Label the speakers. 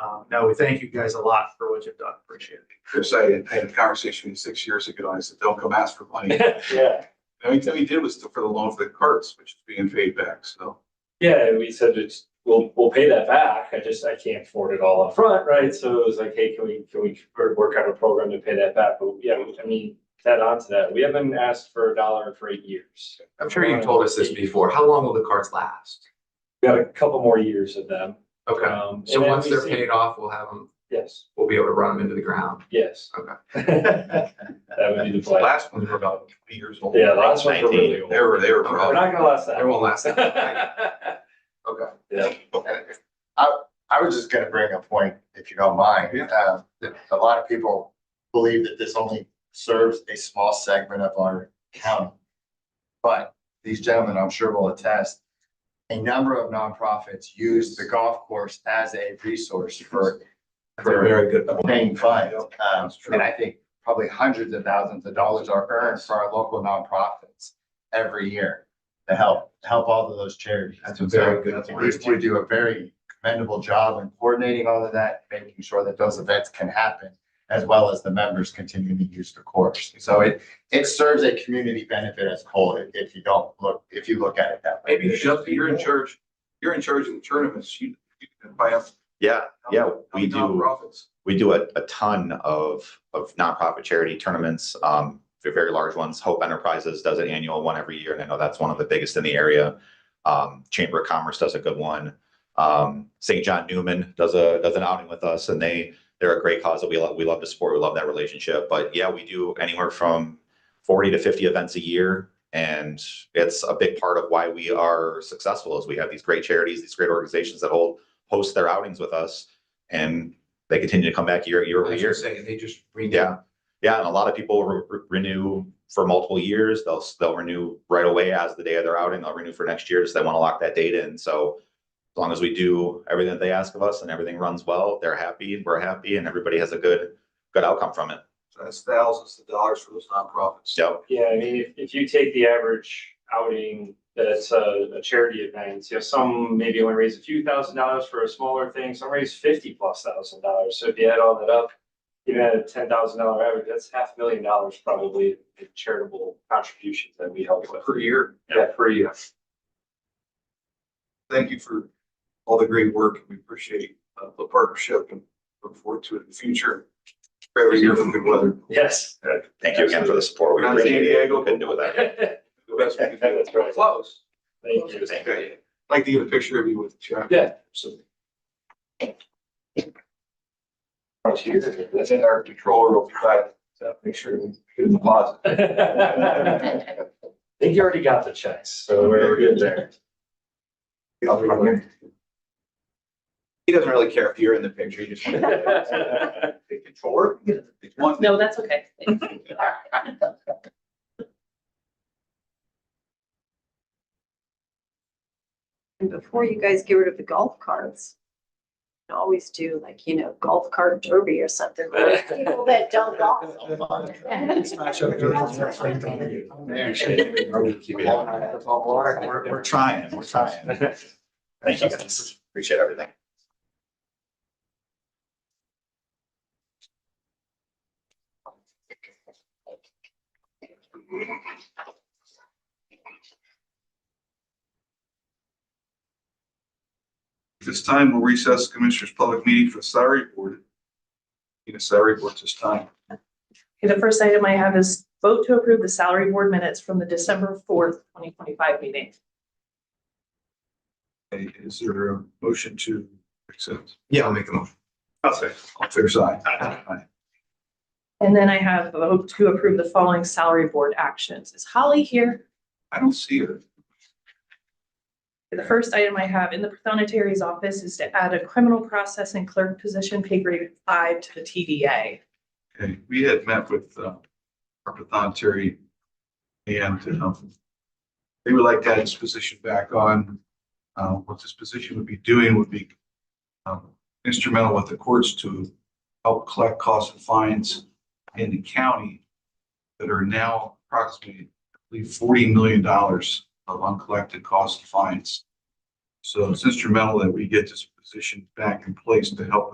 Speaker 1: Um, no, we thank you guys a lot for what you've done. Appreciate
Speaker 2: Chris, I had- I had a conversation with you six years ago, and I said, don't come ask for money.
Speaker 3: Yeah,
Speaker 2: The only thing we did was for the loan for the carts, which is being paid back, so.
Speaker 3: yeah, and we said it's, we'll, we'll pay that back, I just, I can't afford it all up front, right? So it was like, hey, can we, can we work- work out a program to pay that back? But yeah, I mean, to add on to that, we haven't asked for a dollar for eight years.
Speaker 4: I'm sure you've told us this before. How long will the cards last?
Speaker 3: We got a couple more years of them.
Speaker 4: Okay,
Speaker 3: Um,
Speaker 4: so
Speaker 3: and then
Speaker 4: once
Speaker 3: we
Speaker 4: they're
Speaker 3: see-
Speaker 4: paid off, we'll have them,
Speaker 3: Yes,
Speaker 4: we'll be able to run them into the ground.
Speaker 3: yes.
Speaker 4: Okay.
Speaker 1: it.
Speaker 3: That would be the plan.
Speaker 2: Last ones were about twenty years old.
Speaker 3: Yeah, last ones were
Speaker 2: 19.
Speaker 3: really old.
Speaker 2: They were, they were
Speaker 3: We're
Speaker 2: rough.
Speaker 3: not gonna last
Speaker 4: They
Speaker 3: that.
Speaker 4: won't last. that
Speaker 2: Okay.
Speaker 3: Yeah,
Speaker 5: I was just gonna bring a point, if you don't mind. Uh, A lot of people believe that this only serves a small segment of our county. But these gentlemen, I'm sure will attest, a number of nonprofits use the golf course as a resource for
Speaker 4: long. They're very good.
Speaker 5: paying fines.
Speaker 2: Yeah,
Speaker 5: Um,
Speaker 2: that's true.
Speaker 5: And I think probably hundreds of thousands of dollars are earned for our local nonprofits every year to help, help all of those charities.
Speaker 4: That's a very good
Speaker 5: At least
Speaker 4: point.
Speaker 5: we do a very commendable job in coordinating all of that, making sure that those events can happen, as well as the members continuing to use the course. So it, it serves a community benefit as a whole, if- if you don't look, if you look at it that way.
Speaker 2: Maybe you should- you're in charge, you're in charge of the tournaments, you, you can buy up.
Speaker 6: Yeah, yeah, we do.
Speaker 2: Profits.
Speaker 6: we do a, a ton of, of nonprofit charity tournaments, um, for very large ones. Hope Enterprises does an annual one every year, and I know that's one of the biggest in the area. Um, Chamber of Commerce does a good one. Um, St. John Newman does a, does an outing with us, and they, they're a great cause that we love, we love the sport, we love that relationship. But yeah, we do anywhere from forty to fifty events a year. And it's a big part of why we are successful is we have these great charities, these great organizations that hold, host their outings with us. And they continue to come back year, year over
Speaker 4: As you're
Speaker 6: year.
Speaker 4: saying, they just renew.
Speaker 6: Yeah, yeah, and a lot of people re- re- renew for multiple years. They'll s- they'll renew right away as the day of their outing. They'll renew for next year, so they want to lock that date in. So as long as we do everything that they ask of us and everything runs well, they're happy, we're happy, and everybody has a good good outcome from it.
Speaker 2: So That's thousands of dollars for those nonprofits.
Speaker 6: So
Speaker 3: yeah, I mean, if, if you take the average outing that's a, a charity event, you know, some maybe only raise a few thousand dollars for a smaller thing, some raise fifty plus thousand dollars. So if you add all that up, even at a ten thousand dollar average, that's half a million dollars probably in charitable contributions that we help with.
Speaker 2: Per year.
Speaker 3: Yeah, per year.
Speaker 2: Thank you for all the great work. We appreciate uh, the partnership and look forward to it in the future. For Every year for good weather.
Speaker 3: Yes.
Speaker 6: thank you again for the support. We
Speaker 2: Not San
Speaker 6: appreciate it.
Speaker 2: Diego,
Speaker 6: We Couldn't do it without you.
Speaker 3: Thank
Speaker 2: The best we can do.
Speaker 3: That's right.
Speaker 2: Close.
Speaker 3: you.
Speaker 2: Okay. I'd Like to get a picture of you with Chuck.
Speaker 3: Yeah.
Speaker 2: That's in our controller over there. So make sure we get in the closet.
Speaker 3: I think you already got the checks, so we're good there.
Speaker 2: He doesn't really care if you're in the picture. He just. Controller? One.
Speaker 7: No, that's okay.
Speaker 8: And before you guys get rid of the golf carts, you always do like, you know, golf cart derby or something. for People that don't golf.
Speaker 6: We're, we're trying. We're trying. Thank you guys. Appreciate everything.
Speaker 2: At This time, we'll recess the Commissioners' Public Meeting for the Salary Board. Need a salary board at this time.
Speaker 7: The first item I have is vote to approve the salary board minutes from the December fourth, twenty twenty-five meeting.
Speaker 2: Okay, Is there a motion to accept?
Speaker 4: Yeah, I'll make a motion.
Speaker 2: I'll say. All fair side.
Speaker 7: And then I have a vote to approve the following salary board actions. Is Holly here?
Speaker 2: I don't see her.
Speaker 7: The first item I have in the prothonotary's office is to add a criminal processing clerk position, pay grade five to the TDA.
Speaker 2: Okay, we had met with uh, our pathonetary and um, they would like to add this position back on. Uh, What this position would be doing would be um, instrumental with the courts to help collect costs and fines in the county that are now approximately, I believe, forty million dollars of uncollected costs and fines. So it's instrumental that we get this position back in place to help